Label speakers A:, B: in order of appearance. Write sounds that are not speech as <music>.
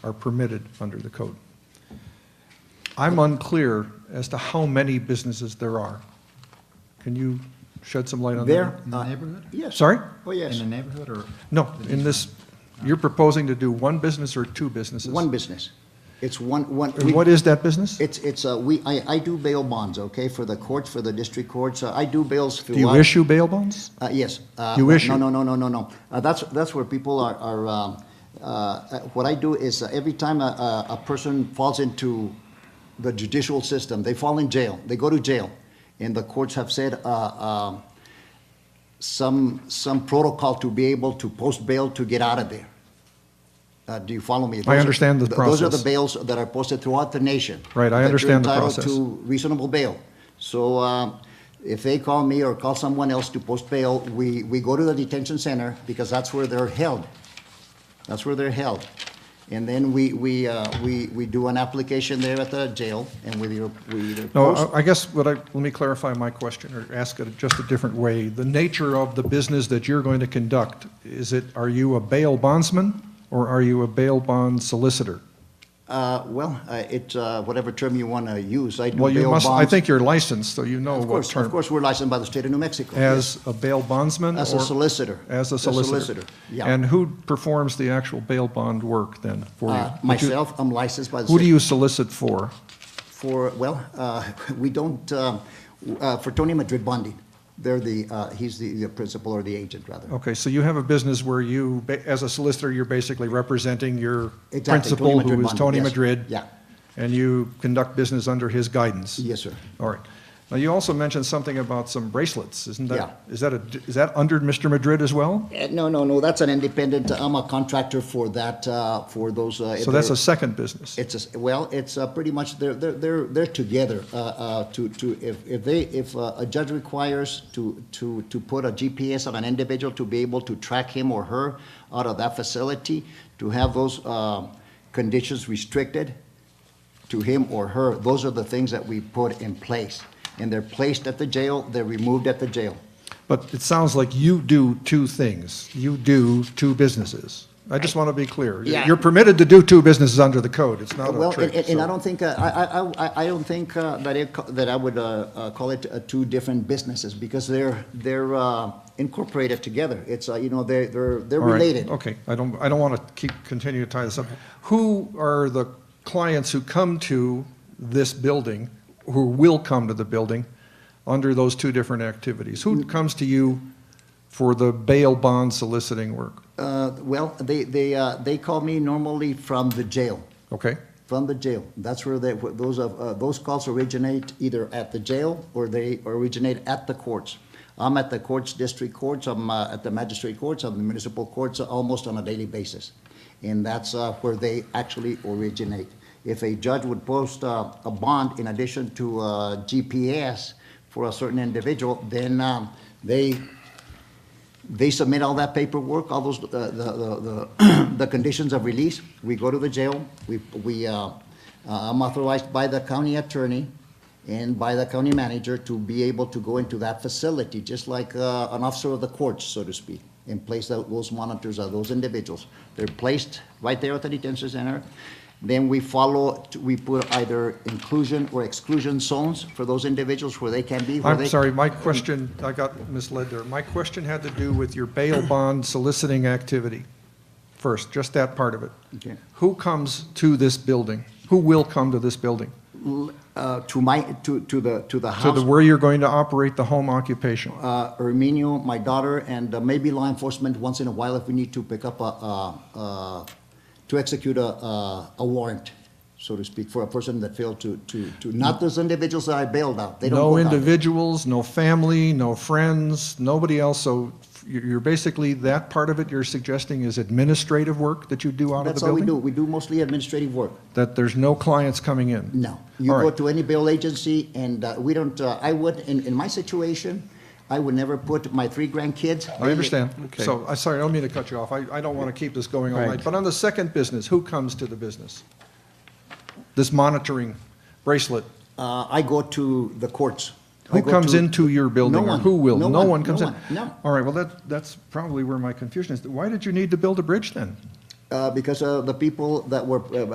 A: are permitted under the code. I'm unclear as to how many businesses there are. Can you shed some light on that?
B: There.
C: In the
B: uh,
C: neighborhood?
B: Yes.
A: Sorry?
B: Oh, yes.
C: In the neighborhood or?
A: No, in this, you're proposing to do one business or two businesses?
B: One business. It's one, one.
A: And what is that business?
B: It's, it's, uh, we, I, I do bail bonds, okay, for the courts, for the district courts. Uh, I do bails throughout.
A: Do you issue bail bonds?
B: Uh, yes. Uh,
A: You
B: no,
A: issue.
B: No, no, no, no, no. Uh, that's, that's where people are, are, um, uh, uh, what I do is uh, every time a, a, a person falls into the judicial system, they fall in jail, they go to jail. And the courts have said, uh, uh, some, some protocol to be able to post bail to get out of there. Uh, do you follow me? Those are-
A: understand the
B: th- Those are the
A: process.
B: bails that are posted throughout the nation.
A: Right, I
B: that you're
A: understand the
B: entitled
A: process.
B: to reasonable bail. So um, if they call me or call someone else to post bail, we, we go to the detention center because that's where they're held. That's where they're held. And then we, we, uh, we, we do an application there at the jail and we, either- we either
A: No,
B: post.
A: I- I guess what I, let me clarify my question, or ask it just a different way. The nature of the business that you're going to conduct, is it, are you a bail bondsman, or are you a bail bond solicitor?
B: Uh, Well, uh, it's uh, whatever term you want to use. I do
A: Well, you
B: bail
A: must, I
B: bonds.
A: think you're licensed, so you know
B: Of
A: what
B: course,
A: term.
B: of course, we're licensed by the state of New Mexico.
A: As a bail bondsman?
B: As a
A: or-
B: solicitor.
A: As a
B: As a
A: solicitor?
B: solicitor, yeah.
A: And who performs the actual bail bond work then for you?
B: Uh,
A: Would you-
B: Myself, I'm licensed by the.
A: Who do
B: state-
A: you solicit for?
B: For, well, uh, <laughs> we don't, uh, uh, for Tony Madrid Bonding, they're the, uh, he's the the principal or the agent, rather.
A: Okay, so you have a business where you, ba- as a solicitor, you're basically representing your
B: Exactly, Tony
A: principal,
B: Madrid
A: who is
B: Bondi,
A: Tony
B: yes,
A: Madrid.
B: yeah.
A: And you conduct business under his guidance?
B: Yes, sir.
A: All right. Now, you also mentioned something about some bracelets, isn't that?
B: Yeah.
A: Is that a, is that under Mr. Madrid as well?
B: Uh, No, no, no, that's an independent, I'm a contractor for that, uh, for those. uh,
A: So that's
B: they're-
A: a second business?
B: It's, a- well, it's uh, pretty much, they're, they're, they're they're together uh, uh, to, to, if, if they, if uh, a judge requires to, to, to put a GPS on an individual to be able to track him or her out of that facility, to have those um, conditions restricted to him or her, those are the things that we put in place. And they're placed at the jail, they're removed at the jail.
A: But it sounds like you do two things. You do two businesses. I just want to be clear.
B: Yeah.
A: You're permitted to do two businesses under the code. It's not a
B: Well, and,
A: trick.
B: and- and I
A: so-
B: don't think, uh, I, I- I, I, I don't think uh, that it, co- that I would uh, uh, call it uh, two different businesses because they're, they're uh, incorporated together. It's, uh, you know, they're, they're, they're
A: All right,
B: related.
A: Okay, I don't, I don't want to keep, continue to tie this up. Who are the clients who come to this building, who will come to the building under those two different activities?
B: Mm.
A: Who comes to you for the bail bond soliciting work?
B: Uh, Well, they, they, uh, they call me normally from the jail,
A: Okay?
B: from the jail. That's where they, where those, of- uh, those calls originate either at the jail or they originate at the courts. I'm at the courts, district courts, I'm uh, at the magistrate courts, I'm the municipal courts, uh, almost on a daily basis. And that's uh, where they actually originate. If a judge would post uh, a bond in addition to uh, GPS for a certain individual, then um, they they submit all that paperwork, all those, uh, the, the, the, <clears throat> the conditions of release. We go to the jail, we, we, uh, uh, I'm authorized by the county attorney and by the county manager to be able to go into that facility, just like, uh, an officer of the courts, so to speak, and place tho- those monitors of those individuals. They're placed right there at the detention center. Then we follow, we put either inclusion or exclusion zones for those individuals where they can be, where they.
A: I'm sorry, my question, I got misled there. My question had to do with your
B: <clears throat>
A: bail bond soliciting activity. First, just that part of it.
B: Okay.
A: Who comes to this building? Who will come to this building?
B: Uh, to my, to, to the, to the
A: To
B: house.
A: the, where you're going to operate the home occupation?
B: uh, Erminio, my daughter, and uh, maybe law enforcement once in a while if we need to pick up a, uh, uh, to execute a, uh, a warrant, so to speak, for a person that failed to, to, to, not those individuals that I bailed out. They don't
A: No
B: go down.
A: individuals, no family, no friends, nobody else, so you're you're basically, that part of it you're suggesting is administrative work that you do out of the
B: That's all we
A: building?
B: do. We do mostly administrative work.
A: That there's no clients coming in?
B: No. You
A: All
B: go
A: right.
B: to any bail agency and uh, we don't, uh, I would, in, in my situation, I would never put my three grandkids.
A: I understand.
D: Okay.
A: So, I'm sorry, I don't mean to cut you off. I, I don't want to keep this going all
D: Right.
A: night. But on the second business, who comes to the business? This monitoring bracelet,
B: Uh, I go to the courts. I
A: who
B: go
A: comes
B: to-
A: into your building?
B: No
A: or
B: one.
A: Who will?
B: No
A: No
B: one.
A: one comes
B: No
A: in?
B: one. No.
A: All right, well, that, that's probably where my confusion is. Why did you need to build a bridge then?
B: uh, because uh, the people that were, uh,